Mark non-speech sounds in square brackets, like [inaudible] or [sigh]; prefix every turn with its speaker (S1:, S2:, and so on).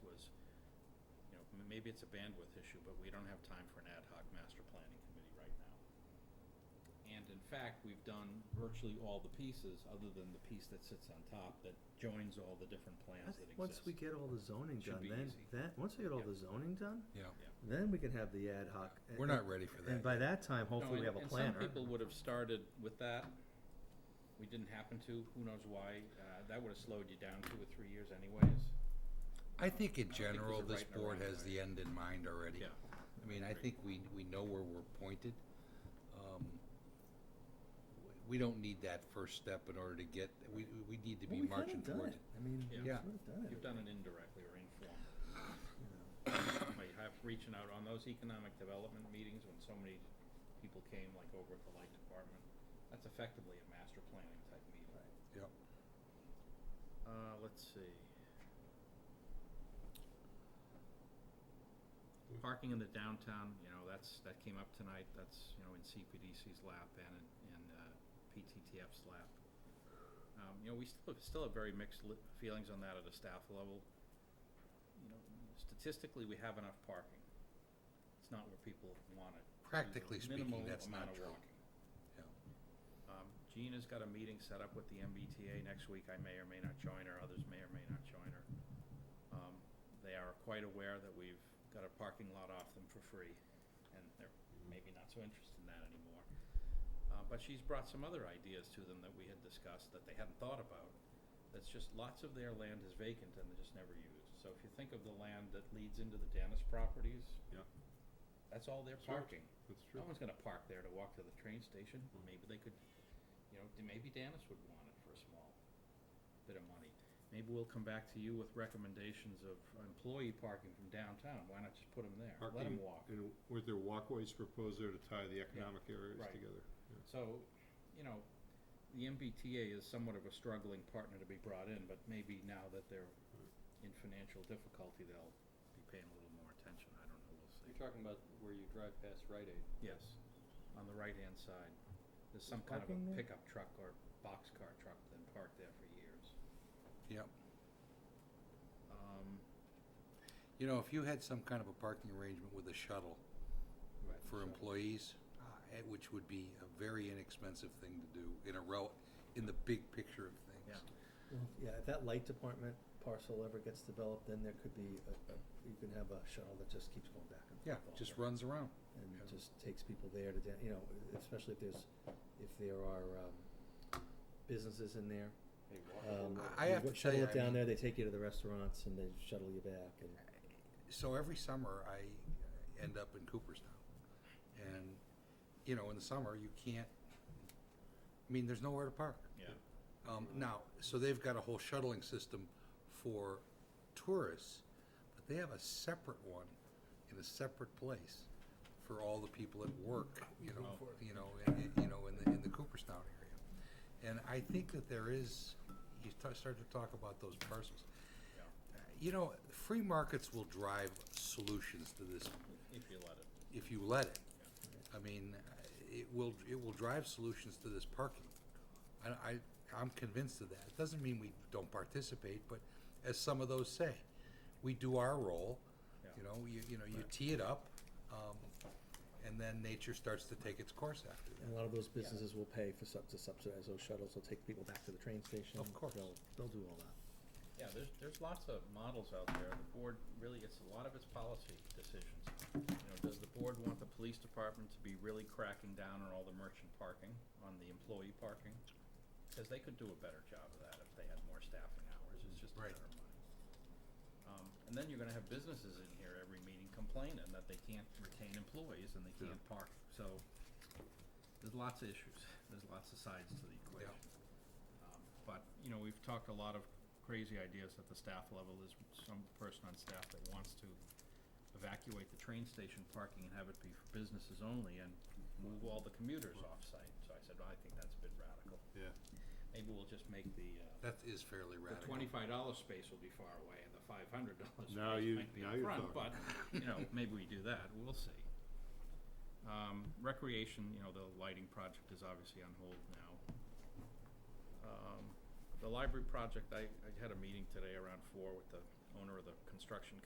S1: I mean, maybe it's a bandwidth issue, but we don't have time for an ad hoc master planning committee right now. And in fact, we've done virtually all the pieces, other than the piece that sits on top that joins all the different
S2: I
S1: plans that
S2: think
S1: exist.
S2: Once we get all the zoning
S1: Should
S2: done,
S1: be
S2: then,
S1: easy.
S2: that, once we get all
S1: Yeah.
S2: the zoning done,
S3: Yeah,
S2: then we can have the ad hoc. a-
S3: we're not ready for
S2: a- And
S3: that.
S2: by that time,
S1: No,
S2: hopefully we
S1: and-
S2: have a planner.
S1: And some people would have started with that. We didn't happen to, who knows why. Uh, that would have slowed you down two or three years anyways. I
S3: I think
S1: don't think
S3: in
S1: there's
S3: general,
S1: a
S3: this
S1: right and a
S3: board
S1: wrong
S3: has
S1: way.
S3: the end in mind already.
S1: Yeah.
S3: I mean, I
S1: Agreed.
S3: think we, we know where we're pointed. Um, w- We don't need that first step in order to get, we, we need to
S2: Well,
S3: be
S2: we've kinda
S3: marching
S2: done
S3: toward
S2: it.
S3: it.
S2: I mean,
S1: Yeah.
S2: we've sort
S3: Yeah.
S2: of done it.
S1: You've done it indirectly or informally.
S2: you know.
S1: By have, reaching out on those economic development meetings when so many people came, like over at the light department, that's effectively a master planning type meeting.
S3: Yep.
S1: Uh, let's see. Parking in the downtown, you know, that's, that came up tonight, that's, you know, in CPDC's lap and in, in, uh, PTTF's lap. Um, you know, we still, still have very mixed li- feelings on that at a staff level. You know, statistically, we have enough parking. It's not where people want it. There's a
S3: Practically speaking,
S1: minimal
S3: that's
S1: amount
S3: not
S1: of
S3: true.
S1: walking.
S3: Yeah.
S1: Um, Jean has got a meeting set up with the MBTA next week. I may or may not join her, others may or may not join her. Um, they are quite aware that we've got a parking lot off them for free, and they're maybe not so interested in that anymore. Uh, but she's brought some other ideas to them that we had discussed that they hadn't thought about. That's just lots of their land is vacant and they're just never used. So if you think of the land that leads into the Dennis properties.
S4: Yeah.
S1: That's all their
S4: Sure.
S1: parking.
S4: That's
S1: No
S4: true.
S1: one's gonna park there to walk to the train station, maybe they could, you know, d- maybe Dennis would want it for a small bit of money. Maybe we'll come back to you with recommendations of employee parking from downtown, why not just put them there, let them
S4: Parking
S1: walk.
S4: And were there walkways proposed there to tie the economic areas
S1: right.
S4: together?
S1: So, you know, the MBTA is somewhat of a struggling partner to be brought in, but maybe now that they're in financial difficulty, they'll be paying a little more attention, I don't know, we'll see.
S5: You're talking about where you drive past Rite Aid.
S1: Yes, on the right-hand side, there's some kind
S2: There's
S1: of a
S2: parking there?
S1: pickup truck or boxcar truck that's been parked there for years.
S3: Yep.
S1: Um,
S3: You know, if you had some kind of a parking arrangement with a shuttle for employees, uh, eh, which would be a very inexpensive thing to do in a rel, in the big picture of things.
S2: Well, Yeah, if that light department parcel ever gets developed, then there could be, a- a- you can have a shuttle that just keeps going back and
S3: Yeah,
S2: forth. all
S3: just
S2: day.
S3: runs around.
S2: And just takes people there to, da- you know, especially if there's, if there are um, businesses in there.
S5: Hey,
S2: Um,
S5: walk.
S3: I- I have
S2: you
S3: to tell
S2: Shuttle
S3: you,
S2: it
S3: I
S2: down
S3: mean-
S2: there, they take you to the restaurants and they shuttle you back and.
S3: so every summer I end up in Cooperstown, and you know, in the summer you can't. I mean, there's nowhere to park.
S1: yeah.
S3: Um, now, so they've got a whole shuttling system for tourists, but they have a separate one in a separate place for all the people at work. You know, you know, in, in- you know, in the in the Cooperstown area, and I think that there is. You ta start to talk about those parcels.
S1: Yeah.
S3: You know, free markets will drive solutions to this
S1: If you let it.
S3: if you let it. I mean, it will, it will drive solutions to this parking. I, I, I'm convinced of that. It doesn't mean we don't participate, but as some of those say, we do our role. You know, you, you know, you tee it up, um, and then nature starts to take its course after that.
S2: And a lot of those businesses will pay for sub, to subsidize those shuttles, they'll take people back to the train station.
S3: Of course.
S2: They'll, they'll do all that.
S1: Yeah, there's, there's lots of models out there. The board really, it's a lot of its policy decisions. You know, does the board want the police department to be really cracking down on all the merchant parking, on the employee parking? Cause they could do a better job of that if they had more staffing hours. It's just a
S3: Right.
S1: matter of money. Um, and then you're gonna have businesses in here every meeting complaining that they can't retain employees and they can't park, so there's lots of issues. There's lots of sides to the equation. Um, But, you know, we've talked a lot of crazy ideas at the staff level. There's some person on staff that wants to evacuate the train station parking and have it be for businesses only and move all the commuters off-site. So I said, well, I think that's a bit radical.
S4: Yeah.
S1: Maybe we'll just make the, uh,
S3: That is fairly
S1: the
S3: radical.
S1: twenty-five dollar space will be far away and the five hundred dollar [laughs]
S4: Now
S1: space
S4: you-
S1: might be
S4: now
S1: up
S4: you're
S1: front,
S4: talking.
S1: but, you
S4: [laughs]
S1: know, maybe we do that. We'll see. Um, recreation, you know, the lighting project is obviously on hold now. Um, the library project, I, I had a meeting today around four with the owner of the construction